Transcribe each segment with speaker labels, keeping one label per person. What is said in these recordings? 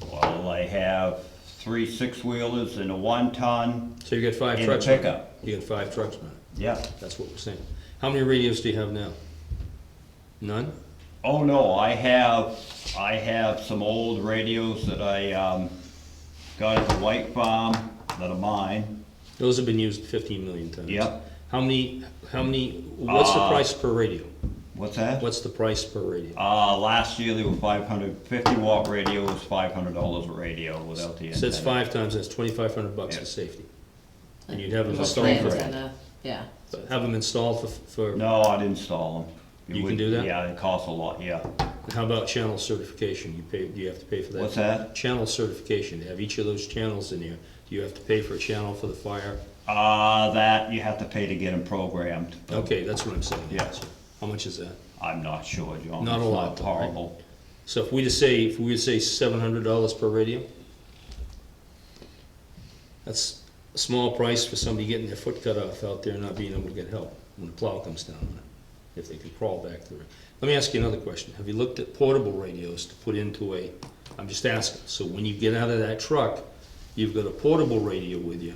Speaker 1: gravel, I have three six-wheelers and a one-ton
Speaker 2: So you got five
Speaker 1: and a
Speaker 2: trucks? now.
Speaker 1: pickup.
Speaker 2: You got five trucks now,
Speaker 1: Yeah.
Speaker 2: that's what we're saying. How many radios do you have now? None?
Speaker 1: Oh, no, I have, I have some old radios that I, um, got at the White Farm that are mine.
Speaker 2: Those have been used fifteen million times.
Speaker 1: Yep.
Speaker 2: How many, how many, what's the
Speaker 1: Uh,
Speaker 2: price per radio?
Speaker 1: What's that?
Speaker 2: What's the price per radio?
Speaker 1: Uh, last year they were five hundred, fifty watt radio was five hundred dollars a radio without the antenna.
Speaker 2: So it's five times, that's twenty-five hundred bucks
Speaker 1: Yeah.
Speaker 2: for safety. And you'd have them
Speaker 1: Well,
Speaker 2: installed
Speaker 1: plans
Speaker 2: for,
Speaker 1: and-
Speaker 3: antenna, yeah.
Speaker 2: but have them installed for, for,
Speaker 1: No, I'd install them. It
Speaker 2: You can
Speaker 1: would-
Speaker 2: do that?
Speaker 1: Yeah, it costs a lot, yeah.
Speaker 2: how about channel certification? You pay, do you have to pay for that?
Speaker 1: What's that?
Speaker 2: Channel certification, they have each of those channels in here. Do you have to pay for a channel for the fire?
Speaker 1: Uh, that you have to pay to get them programmed. but
Speaker 2: Okay, that's what I'm saying.
Speaker 1: Yeah.
Speaker 2: How much is that?
Speaker 1: I'm not sure, John.
Speaker 2: Not a
Speaker 1: It's
Speaker 2: lot, though, right?
Speaker 1: Horrible.
Speaker 2: So if we just say, if we would say seven hundred dollars per radio, that's a small price for somebody getting their foot cut off out there and not being able to get help when the plow comes down on it, if they can crawl back through it. Let me ask you another question. Have you looked at portable radios to put into a, I'm just asking, so when you get out of that truck, you've got a portable radio with you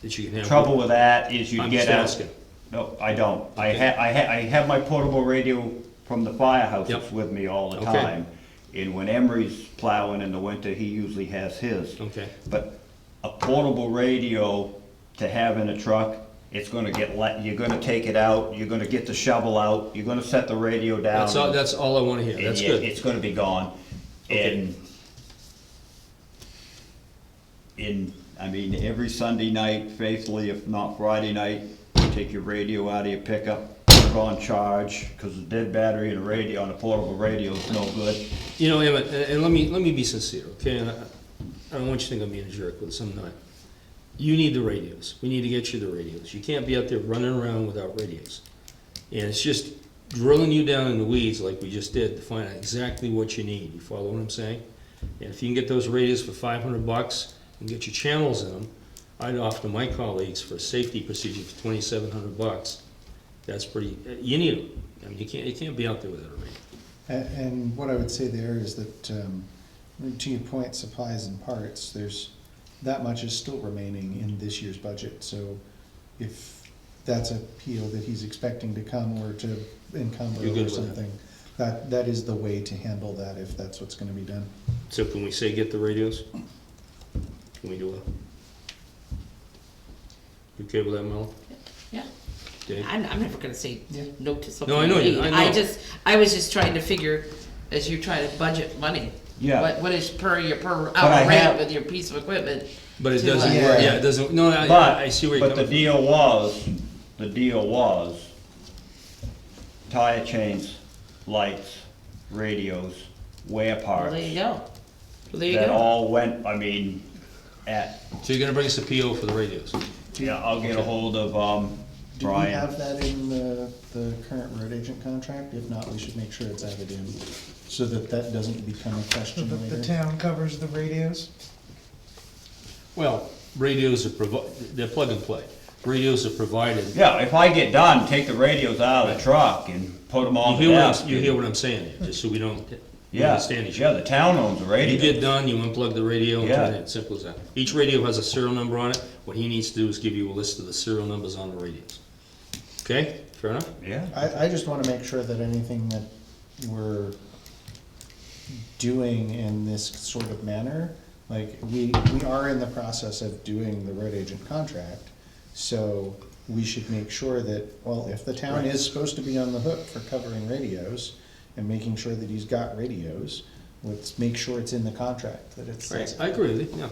Speaker 2: that you can have.
Speaker 1: Trouble with that is you
Speaker 2: I'm
Speaker 1: get
Speaker 2: just
Speaker 1: out.
Speaker 2: asking.
Speaker 1: No, I don't. I
Speaker 2: Okay.
Speaker 1: ha, I ha, I have my portable radio from the firehouse
Speaker 2: Yep.
Speaker 1: that's with me all the
Speaker 2: Okay.
Speaker 1: time. And when Emery's plowing in the winter, he usually has his.
Speaker 2: Okay,
Speaker 1: But a portable radio to have in a truck, it's gonna get, let- you're gonna take it out, you're gonna get the shovel out, you're gonna set the radio down.
Speaker 2: that's all, that's all I wanna hear.
Speaker 1: and
Speaker 2: That's
Speaker 1: it-
Speaker 2: good.
Speaker 1: It's gonna be gone.
Speaker 2: Okay.
Speaker 1: And in, I mean, every Sunday night, faithfully, if not Friday night, you take your radio out of your pickup, put it on charge, cause a dead battery in a radio, on a portable radio is no good.
Speaker 2: You know, Emmett, and, and let me, let me be sincere, okay, and I, I don't want you to think I'm being a jerk with this, I'm not. You need the radios, we need to get you the radios, you can't be out there running around without radios. And it's just drilling you down in the weeds like we just did to find out exactly what you need, you follow what I'm saying? And if you can get those radios for five hundred bucks and get your channels in them, I'd offer to my colleagues for a safety procedure for twenty-seven hundred bucks. That's pretty, you need them, I mean, you can't, you can't be out there without a radio.
Speaker 4: A- And what I would say there is that, um, to your point, supplies and parts, there's, that much is still remaining in this year's budget. So if that's a PO that he's expecting to come or to encumber
Speaker 2: You're good
Speaker 4: or
Speaker 2: with that.
Speaker 4: something, that, that is the way to handle that if that's what's gonna be done.
Speaker 2: So can we say get the radios? Can we do a? You okay with that, Mel?
Speaker 3: Yeah,
Speaker 2: Dave?
Speaker 3: I'm, I'm never gonna say
Speaker 4: Yeah.
Speaker 3: no to something.
Speaker 2: I know
Speaker 3: we
Speaker 2: you-
Speaker 3: need.
Speaker 2: I know.
Speaker 3: I just, I was just trying to figure, as you try to budget money.
Speaker 1: Yeah.
Speaker 3: What, what is per, your per
Speaker 1: I
Speaker 3: hour rate
Speaker 1: have-
Speaker 3: with your piece of equipment?
Speaker 2: But it
Speaker 3: to,
Speaker 2: doesn't
Speaker 3: uh,
Speaker 2: work, yeah, it doesn't, no, I,
Speaker 1: But,
Speaker 2: I see where you're
Speaker 1: but the
Speaker 2: coming from.
Speaker 1: deal was, the deal was, tire chains, lights, radios, wear
Speaker 3: Well,
Speaker 1: parts.
Speaker 3: there you go. Well, There you
Speaker 1: That
Speaker 3: go.
Speaker 1: all went, I mean, at,
Speaker 2: So you're gonna bring us a PO for the radios?
Speaker 1: yeah, I'll get a hold of, um,
Speaker 4: Do we
Speaker 1: Brian.
Speaker 4: have that in the, the current road agent contract? If not, we should make sure it's added in, so that that doesn't become a
Speaker 5: So
Speaker 4: question
Speaker 5: the, the
Speaker 4: later.
Speaker 5: town covers the radios?
Speaker 2: Well, radios are provi, they're plug and play. Radios are provided.
Speaker 1: Yeah, if I get done, take the radios out of the truck and put them
Speaker 2: You
Speaker 1: on the
Speaker 2: hear what
Speaker 1: desk.
Speaker 2: I'm, you hear what I'm saying, here, just so we don't we
Speaker 1: Yeah,
Speaker 2: understand each
Speaker 1: yeah,
Speaker 2: other.
Speaker 1: the town owns the
Speaker 2: You get
Speaker 1: radio.
Speaker 2: done, you unplug the radio, and
Speaker 1: Yeah.
Speaker 2: turn it in, simple as that. Each radio has a serial number on it. What he needs to do is give you a list of the serial numbers on the radios. Okay, fair enough?
Speaker 1: Yeah,
Speaker 4: I, I just wanna make sure that anything that we're doing in this sort of manner, like, we, we are in the process of doing the road agent contract, so we should make sure that, well, if the town is supposed to be on the hook for covering radios and making sure that he's got radios, let's make sure it's in the contract, that it's.
Speaker 2: Right, I agree with you, yeah.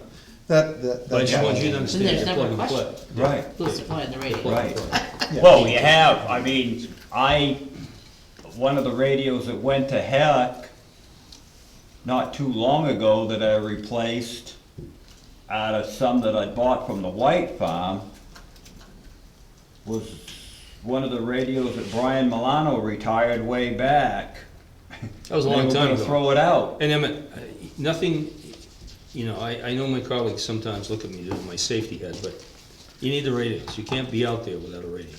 Speaker 4: That, that.
Speaker 2: But I just
Speaker 4: that's-
Speaker 2: want you to understand,
Speaker 3: there's
Speaker 2: you're
Speaker 3: never a
Speaker 2: plug and play.
Speaker 1: right,
Speaker 3: Who's supplying the radio?
Speaker 1: right.
Speaker 4: Yeah.
Speaker 1: Well, you have, I mean, I, one of the radios that went to heck not too long ago that I replaced out of some that I bought from the White Farm was one of the radios that Brian Milano retired way back.
Speaker 2: That was a long
Speaker 1: They were
Speaker 2: time
Speaker 1: gonna
Speaker 2: ago.
Speaker 1: throw it out.
Speaker 2: And Emmett, uh, nothing, you know, I, I know my colleagues sometimes look at me, they're my safety head, but you need the radios. You can't be out there without a radio.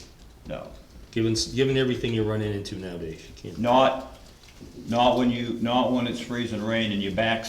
Speaker 1: No,
Speaker 2: Given, s- given everything you're running into nowadays, you can't.
Speaker 1: not, not when you, not when it's freezing rain and your back's